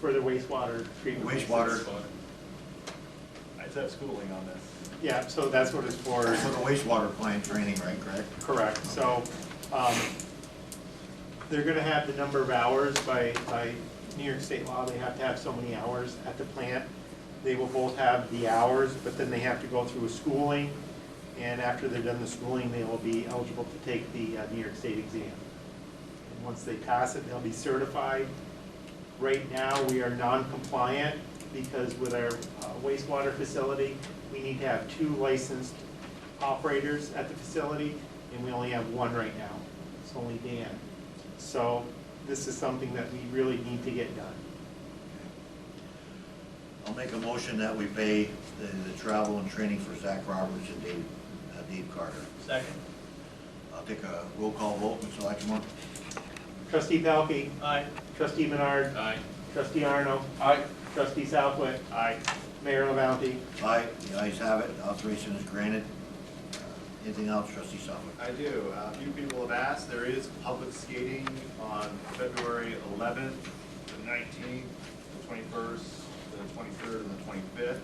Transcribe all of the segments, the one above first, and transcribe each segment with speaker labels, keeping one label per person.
Speaker 1: for the wastewater treatment.
Speaker 2: Wastewater,
Speaker 3: I said schooling on this.
Speaker 1: Yeah, so that's what it's
Speaker 2: for
Speaker 1: for,
Speaker 2: the wastewater plant training, right, correct?
Speaker 1: correct, so, um, they're gonna have the number of hours by, by New York State law, they have to have so many hours at the plant. They will both have the hours, but then they have to go through a schooling, and after they're done the schooling, they will be eligible to take the, uh, New York State exam. And once they pass it, they'll be certified, Right now, we are non-compliant because with our uh, wastewater facility, we need to have two licensed operators at the facility, and we only have one right now. It's only Dan. So this is something that we really need to get done.
Speaker 2: I'll make a motion that we pay the, the travel and training for Zach Roberts and Dave, uh, Dave Carter.
Speaker 3: Second.
Speaker 2: I'll take a roll call vote, Mr. Lattimore.
Speaker 1: Trustee Pelkey,
Speaker 3: Aye.
Speaker 1: trustee Menard,
Speaker 3: Aye.
Speaker 1: trustee Arno,
Speaker 3: Aye.
Speaker 1: trustee Southwick,
Speaker 3: Aye.
Speaker 1: Mayor LaBounty.
Speaker 2: Aye, the ayes have it, authorization is granted. Uh, Anything else, trustee Southwick?
Speaker 3: I do. Uh, A few people have asked, there is public skating on February 11th, the 19th, the 21st, the 23rd, and the 25th.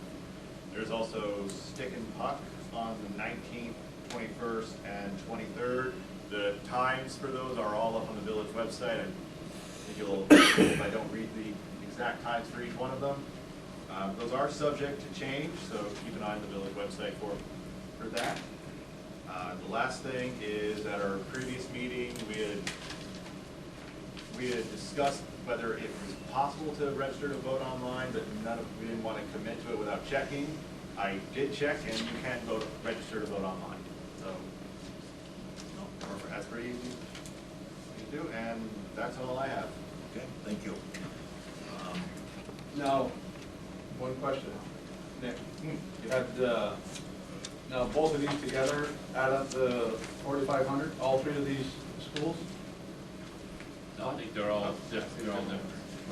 Speaker 3: There's also stick and puck on the 19th, 21st, and 23rd. The times for those are all up on the village website. I think you'll, if I don't read the exact times for each one of them. Uh, Those are subject to change, so keep an eye on the village website for, for that. Uh, The last thing is, at our previous meeting, we had, we had discussed whether it was possible to register to vote online, but none of, we didn't want to commit to it without checking. I did check, and you can vote, register to vote online, so
Speaker 2: No,
Speaker 3: that's
Speaker 2: perfect.
Speaker 3: pretty easy to do, and that's all I have.
Speaker 2: Okay, thank you. Um,
Speaker 4: Now, one question. Nick,
Speaker 5: Hmm.
Speaker 4: you had, uh, now both of these together add up to forty-five hundred, all three of these schools?
Speaker 5: No, I think they're all different, they're all different.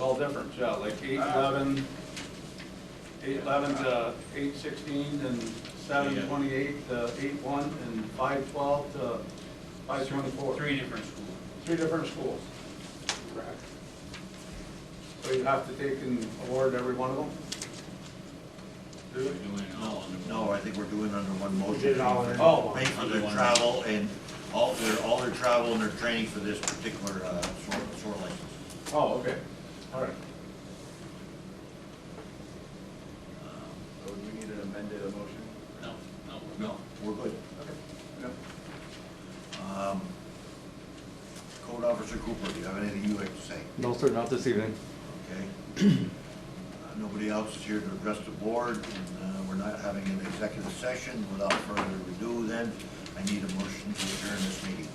Speaker 4: All different, yeah, like eight
Speaker 5: Uh,
Speaker 4: eleven, eight eleven to eight sixteen, and seven
Speaker 5: Yeah.
Speaker 4: twenty-eight to eight one, and five twelve to five twenty-four.
Speaker 5: Three different schools.
Speaker 4: Three different schools.
Speaker 1: Correct.
Speaker 4: So you have to take and award every one of them?
Speaker 5: We're doing it all under one.
Speaker 2: No, I think we're doing under one motion.
Speaker 1: We did it all in.
Speaker 4: Oh,
Speaker 2: Pay for their travel and all their, all their travel and their training for this particular, uh, sort, sort license.
Speaker 4: Oh, okay, all right.
Speaker 3: Um, So do we need an amended motion?
Speaker 5: No, no, we're
Speaker 2: No, we're good.
Speaker 4: Yep.
Speaker 2: Um, Code Officer Cooper, do you have anything you'd like to say?
Speaker 6: No, sir, not this evening.
Speaker 2: Okay? Uh, Nobody else is here to address the board, and uh, we're not having an executive session. Without further ado, then, I need a motion to adjourn this meeting.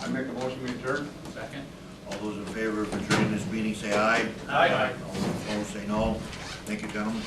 Speaker 4: I make a motion, we adjourn?
Speaker 5: good. Second?
Speaker 2: All those in favor of adjourning this meeting, say aye.
Speaker 4: Aye.
Speaker 2: All those opposed, say no. Thank you, gentlemen.